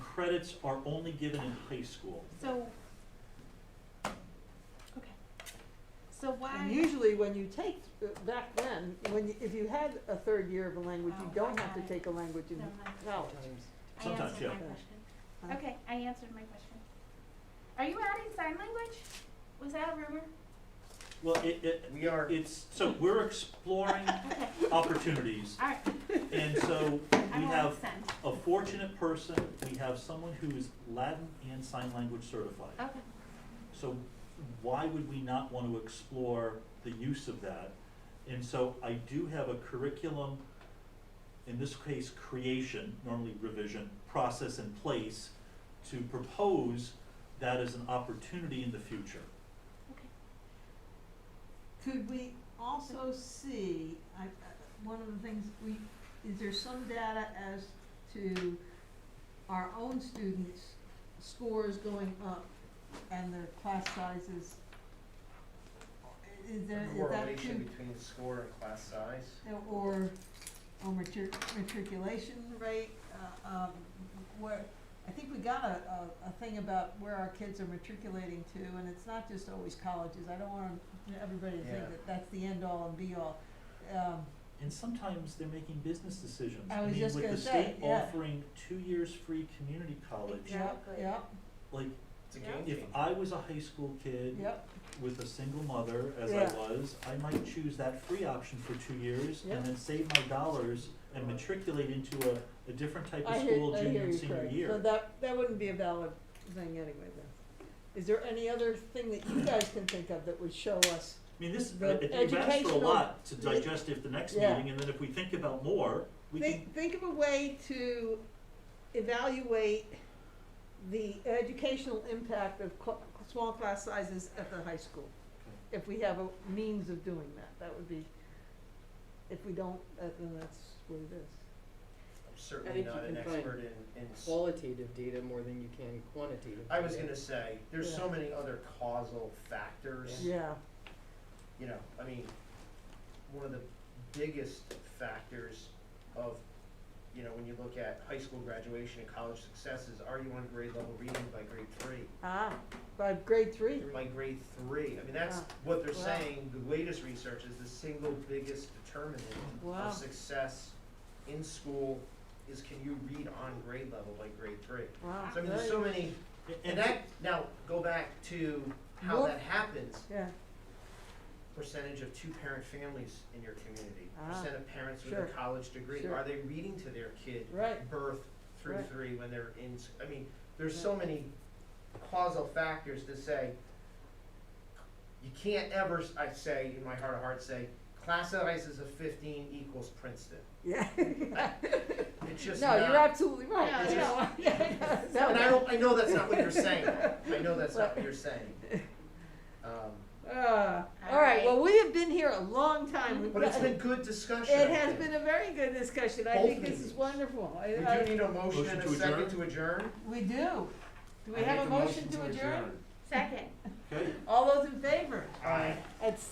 credits are only given in high school. So, okay. So And why, usually when you take, uh, back then, when, you- if you had a third year of a language, you Oh, don't I have to got it. take a language in Never mind. college. I Sometimes, answered my yeah. question. Huh? Okay, I answered my question. Are you adding sign language? Was that a rumor? Well, it, it, We are, it's, so we're exploring Okay, opportunities. all right, And so I we don't have want to send. a fortunate person, we have someone who is Latin and sign language certified. Okay, So why would we not want to explore the use of that? And so I do have a curriculum, in this case, creation, normally revision, process in place to propose that as an opportunity in the future. Could we also see, I, I- one of the things we, is there some data as to our own students' scores going up and their class sizes? Is there, a is that correlation too, between score and class size. or, or matric, matriculation rate, uh, um, where, I think we got a, a, a thing about where our kids are matriculating to, and it's not just always colleges, I don't want everybody to Yeah. think that that's the end all and be all. Um, And sometimes they're making business decisions. I was just gonna say, mean, with the state yeah. offering two years free community college, yep, Exactly. yep, like, It's a Yeah. game if changer. I was a high school kid yep, with a single mother, as I Yeah. was, I might choose that free option for two years Yeah. and then save my dollars and matriculate into a, a different type I of hear, school I junior hear and you, senior Craig. year. So that, that wouldn't be a valid thing anyway then. Is there any other thing that you guys can think of that would show us? I mean, this, The I- you've asked for a educational- lot to digest if the next Yeah. meeting, and then if we think about more, we can, Think, think of a way to evaluate the educational impact of cl- small class sizes at the high school. If we have a means of doing that, that would be, if we don't, uh, then that's what it is. I'm I certainly think you not an can find expert in, in, s- qualitative data more than you can quantitative. I was data. gonna say, there's Yeah. so many other causal factors, Yeah, you know, I mean, one of the biggest factors of, you know, when you look at high school graduation and college successes, are you on grade level reading by grade three? ah, by grade three, Through my grade three, I mean, that's Wow. what they're Wow. saying, the latest research is the single biggest determinant Wow. of success in school is can you read on grade level by grade three? wow. So I mean, there's very- so many, and and, that, now, go back to how More- that happens, Yeah, percentage of two-parent families in your community, Ah, percent of parents with sure, a college degree, sure. are they reading to their kid right, birth through Right. three when they're in, s- I mean, there's so many causal factors to say, you can't ever, s- I say, in my heart of hearts, say, class sizes of fifteen equals Princeton. yeah. It's just No, not. you're absolutely right. No, You no. know, yeah, no, And I don't, I know that's not what you're saying, I know that's not what you're saying. Um, Uh, all right, Alright. well, we have been here a long time. We've but it's got- been good discussion. It I has think. been a very good discussion. I Both think this is meetings. wonderful. I- We I- do need a motion Motion and a to second adjourn? to adjourn. We do. Do we have a motion to adjourn? second. okay. All those in favor? Aye. It's